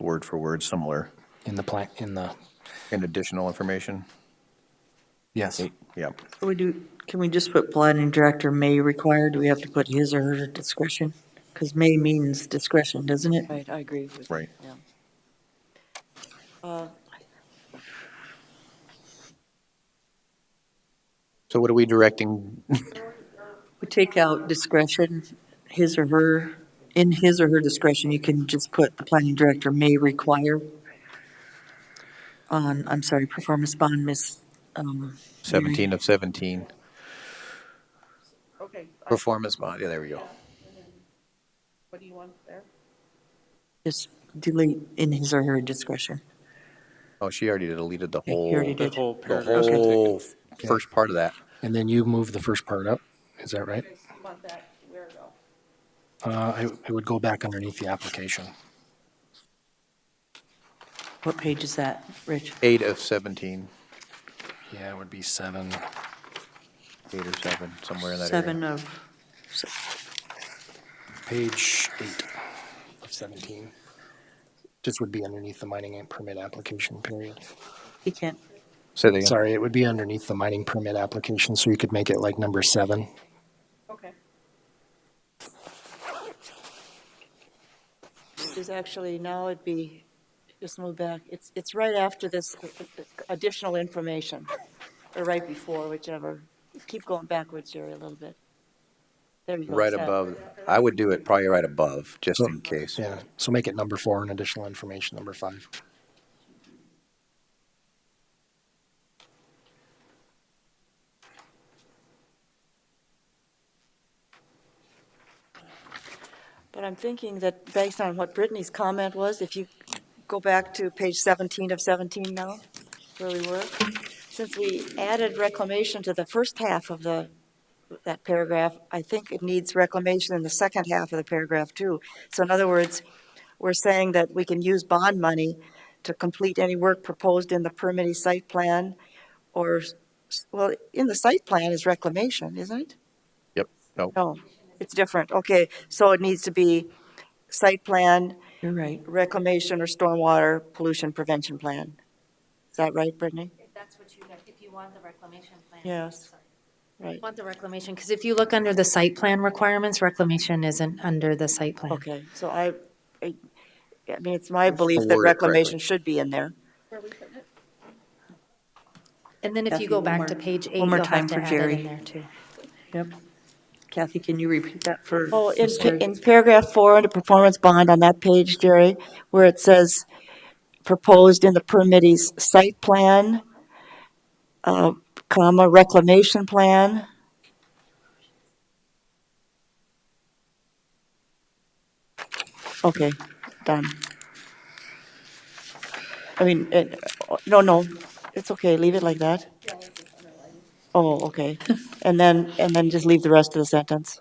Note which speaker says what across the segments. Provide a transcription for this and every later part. Speaker 1: word for word similar
Speaker 2: in the plan, in the,
Speaker 1: and additional information.
Speaker 2: yes.
Speaker 1: Yep.
Speaker 3: Can we do, can we just put planning director may require? Do we have to put his or her discretion? Because may means discretion, doesn't it?
Speaker 4: Right, I agree with.
Speaker 1: Right.
Speaker 4: yeah. Uh,
Speaker 5: So what are we directing?
Speaker 3: We take out discretion, his or her, in his or her discretion, you can just put the planning director may require on, I'm sorry, performance bond, miss, um,
Speaker 5: 17 of 17,
Speaker 6: Okay, uh,
Speaker 5: performance bond, yeah, there we go.
Speaker 6: what do you want there?
Speaker 3: just delete in his or her discretion.
Speaker 5: Oh, she already deleted the
Speaker 3: Yeah, you
Speaker 5: whole,
Speaker 3: already did.
Speaker 5: Oh, the
Speaker 7: The whole paragraph.
Speaker 5: whole first part of that.
Speaker 2: And then you move the first part up, is that right?
Speaker 6: You guys want that where though?
Speaker 2: Uh, I, I would go back underneath the application.
Speaker 3: What page is that, Rich?
Speaker 5: Eight of 17,
Speaker 2: Yeah, it would be seven.
Speaker 5: eight or seven, somewhere in that area.
Speaker 3: Seven of,
Speaker 2: Page eight of 17. This would be underneath the mining and permit application period.
Speaker 3: he can't,
Speaker 5: Say that again.
Speaker 2: Sorry, it would be underneath the mining permit application, so you could make it like number seven.
Speaker 6: Okay.
Speaker 4: Is actually, now it'd be, just move back, it's, it's right after this additional information, or right before, whichever. Keep going backwards, Jerry, a little bit. There you go.
Speaker 5: Right
Speaker 4: it's that.
Speaker 5: above, I would do it probably right above, just in case.
Speaker 2: Yeah, so make it number four and additional information, number five.
Speaker 4: But I'm thinking that based on what Brittany's comment was, if you go back to page 17 of 17 now, where we were, since we added reclamation to the first half of the, that paragraph, I think it needs reclamation in the second half of the paragraph too. So in other words, we're saying that we can use bond money to complete any work proposed in the permitting site plan or, s- well, in the site plan is reclamation, isn't it?
Speaker 5: Yep, no,
Speaker 4: No, it's different. Okay, so it needs to be site plan,
Speaker 3: you're right.
Speaker 4: reclamation or stormwater pollution prevention plan. Is that right, Brittany?
Speaker 8: If that's what you, like, if you want the reclamation plan.
Speaker 4: Yes. Right,
Speaker 8: You Want the reclamation, because if you look under the site plan requirements, reclamation isn't under the site plan.
Speaker 4: okay, so I, I, I mean, it's my belief that
Speaker 5: Word it
Speaker 4: reclamation
Speaker 5: correctly.
Speaker 4: should be in there.
Speaker 8: And then if
Speaker 3: Kathy,
Speaker 8: you go
Speaker 3: one more-
Speaker 8: back to page
Speaker 3: one
Speaker 8: eight, you'll
Speaker 3: more
Speaker 8: have
Speaker 3: time
Speaker 8: to
Speaker 3: for
Speaker 8: add it
Speaker 3: Jerry.
Speaker 8: in there too.
Speaker 3: Yep. Kathy, can you repeat that for?
Speaker 4: Oh, in,
Speaker 3: Mr.
Speaker 4: pa- in paragraph four, under performance bond on that page, Jerry, where it says proposed in the permittee's site plan, uh, comma, reclamation plan. Okay, done. I mean, it, no, no, it's okay, leave it like that. Oh, okay. And then, and then just leave the rest of the sentence.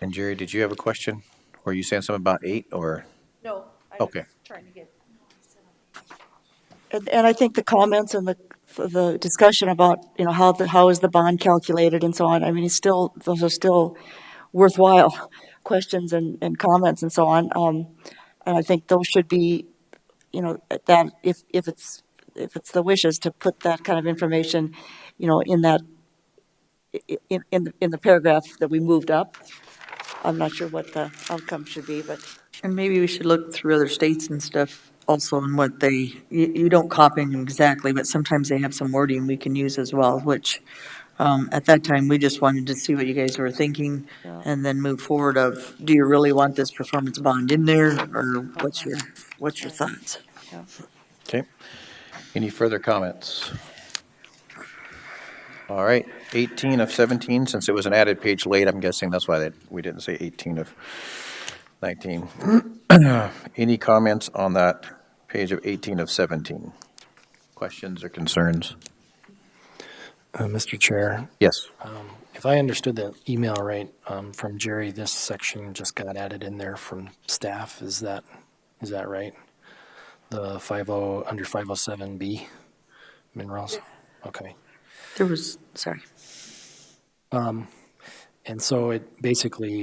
Speaker 5: And Jerry, did you have a question? Were you saying something about eight or?
Speaker 6: No, I
Speaker 5: Okay.
Speaker 6: was trying to get
Speaker 4: And, and I think the comments and the, the discussion about, you know, how the, how is the bond calculated and so on, I mean, it's still, those are still worthwhile questions and, and comments and so on. Um, and I think those should be, you know, that, if, if it's, if it's the wishes to put that kind of information, you know, in that, i- in, in, the- in the paragraph that we moved up. I'm not sure what the outcome should be, but
Speaker 3: And maybe we should look through other states and stuff also and what they, you, you don't copy them exactly, but sometimes they have some wording we can use as well, which, um, at that time, we just wanted to see what you guys were thinking
Speaker 4: Yeah.
Speaker 3: and then move forward of, do you really want this performance bond in there or what's your, what's your thoughts?
Speaker 5: Okay. Any further comments? All right, 18 of 17, since it was an added page late, I'm guessing that's why they- we didn't say 18 of 19. Any comments on that page of 18 of 17? Questions or concerns?
Speaker 2: Uh, Mr. Chair,
Speaker 5: Yes.
Speaker 2: if I understood the email right, um, from Jerry, this section just got added in there from staff, is that, is that right? The five oh, under five oh seven B minerals, okay. Um,
Speaker 3: There was, sorry.
Speaker 1: And so it basically